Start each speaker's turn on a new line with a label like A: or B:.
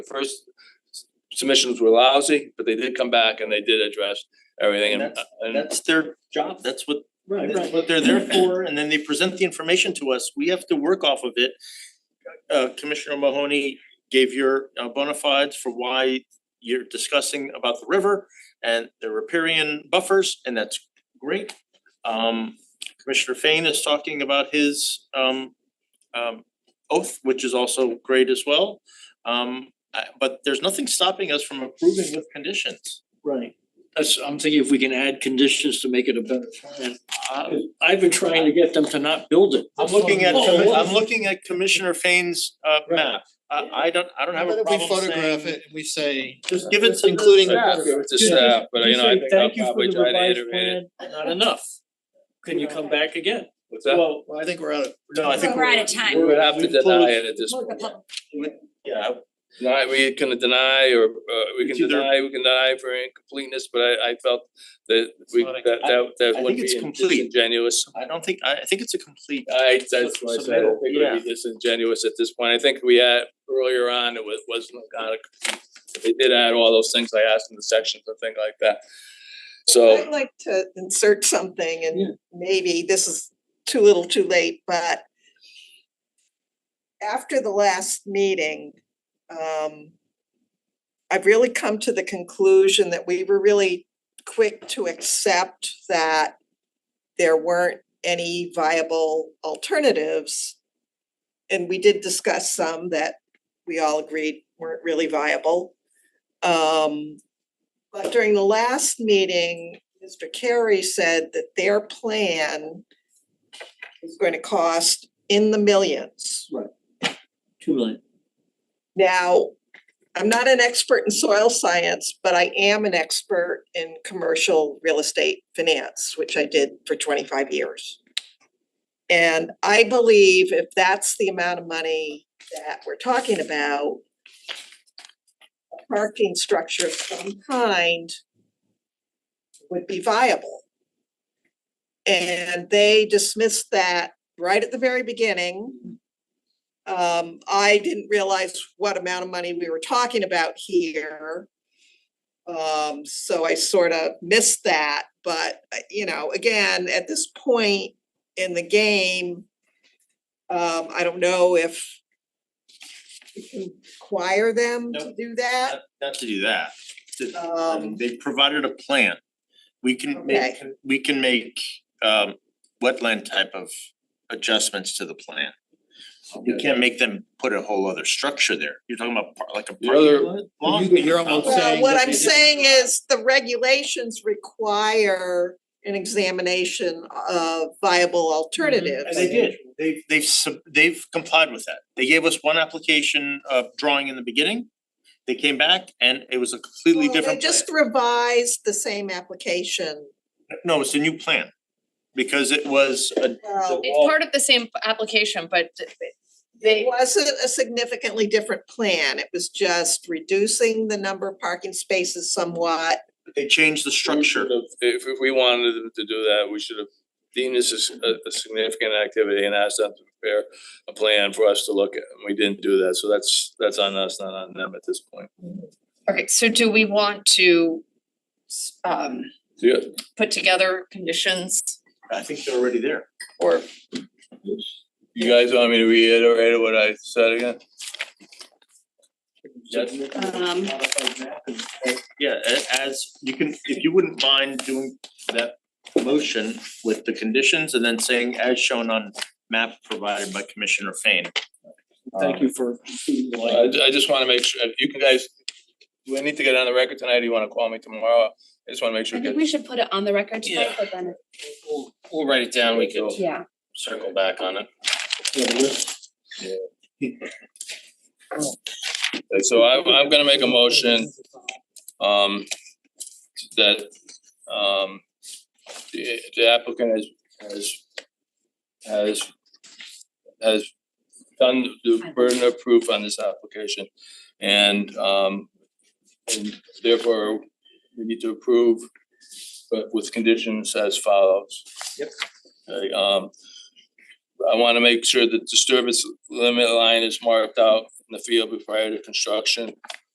A: The first submissions were lousy, but they did come back and they did address everything and
B: And that's-
A: and
B: That's their job, that's what,
C: Right,
B: that's
C: right.
B: what they're there for, and then they present the information to us, we have to work off of it. Uh Commissioner Mahoney gave your uh bona fides for why you're discussing about the river and the riparian buffers, and that's great. Um Commissioner Fain is talking about his um um oath, which is also great as well. Um I- but there's nothing stopping us from approving with conditions.
C: Right. That's, I'm thinking if we can add conditions to make it a better plan. I- I've been trying to get them to not build it.
B: I'm looking at,
C: Oh,
B: commi-
C: what
B: I'm
C: is-
B: looking at Commissioner Fain's uh
C: Right.
B: map. I I don't, I don't have
D: What
B: a
D: if we
B: problem
D: photograph
B: saying-
D: it and we say,
B: Just give it
C: Just
B: some.
D: including
A: staff, give it to staff, but you know, I think I'll probably try to iterate it.
C: Not enough. Can you come back again?
A: What's that?
C: Well,
D: well, I think we're out of,
B: No, I think
E: We're out of time.
A: We would have to
B: we close-
A: deny it at this
E: Close the
A: point.
E: public
B: Yeah,
A: Not, we can deny or uh we
B: It's
A: can
B: either-
A: deny, we can deny for incompleteness, but I I felt that we
B: not a-
A: that that
B: I
A: that
B: think
A: would be
B: it's complete.
A: disingenuous.
B: I don't think, I I think it's a complete,
A: I that's what I said, I
B: Submittal,
A: think it
B: yeah.
A: would be disingenuous at this point, I think we had earlier on, it was wasn't kind of. They did add all those things I asked in the sections and things like that, so.
F: I'd like to insert something
C: Yeah.
F: and maybe this is too little too late, but after the last meeting, um, I've really come to the conclusion that we were really quick to accept that there weren't any viable alternatives. And we did discuss some that we all agreed weren't really viable. Um, but during the last meeting, Mr. Carey said that their plan is going to cost in the millions.
C: two million.
F: Now, I'm not an expert in soil science, but I am an expert in commercial real estate finance, which I did for twenty-five years. And I believe if that's the amount of money that we're talking about, a parking structure of some kind would be viable. And they dismissed that right at the very beginning. Um, I didn't realize what amount of money we were talking about here. Um, so I sort of missed that, but, uh, you know, again, at this point in the game, um, I don't know if we can require them to
B: Nope.
F: do that.
B: not not to do that. To-
F: Um,
B: They provided a plan. We can make, we can make um wetland type of adjustments to the plan. We can't make them put a whole other structure there. You're talking about par- like a
A: The other-
B: parking lot? Long-
D: You- you're almost
B: Well,
F: Well,
D: saying
F: what
D: that
F: I'm
D: they
F: saying is the regulations require an examination of viable alternatives.
B: Mm-hmm. And they did, they've they've sub- they've complied with that. They gave us one application of drawing in the beginning. They came back and it was a completely
F: Well, They
B: different plan.
F: just revised the same application.
B: No, it's a new plan. Because it was a,
F: Well,
B: Well-
G: It's part of the same application, but
F: it
G: they,
F: wasn't a significantly different plan. It was just reducing the number of parking spaces somewhat.
B: they changed the structure.
A: should have- If if we wanted them to do that, we should have deemed this as a a significant activity and asked them to prepare a plan for us to look at, and we didn't do that, so that's that's on us, not on them at this point.
G: okay, so do we want to s- um
A: So yeah,
G: put together conditions
B: I think they're already there.
G: or
A: you guys want me to reiterate what I said again? Yes.
E: Um,
B: Yeah, a- as you can, if you wouldn't mind doing that motion with the conditions and then saying as shown on map provided by Commissioner Fain.
A: Uh,
C: Thank you for. including the
A: I
C: light.
A: ju- I just wanna make sure, you can guys, do I need to get on the record tonight, do you wanna call me tomorrow? I just wanna make sure.
H: I
A: we
H: think
A: get-
H: we should put it on the record tonight,
B: Yeah.
H: but then,
B: We'll we'll write it down, we can
H: yeah,
B: circle back on it.
C: Yeah,
A: uh,
C: this-
A: So I'm I'm gonna make a motion um that um the the applicant has has has has done the burden of proof on this application and um and therefore we need to approve but with conditions as follows. Yep. Okay, um I wanna make sure that disturbance limit line is marked out in the field prior to construction.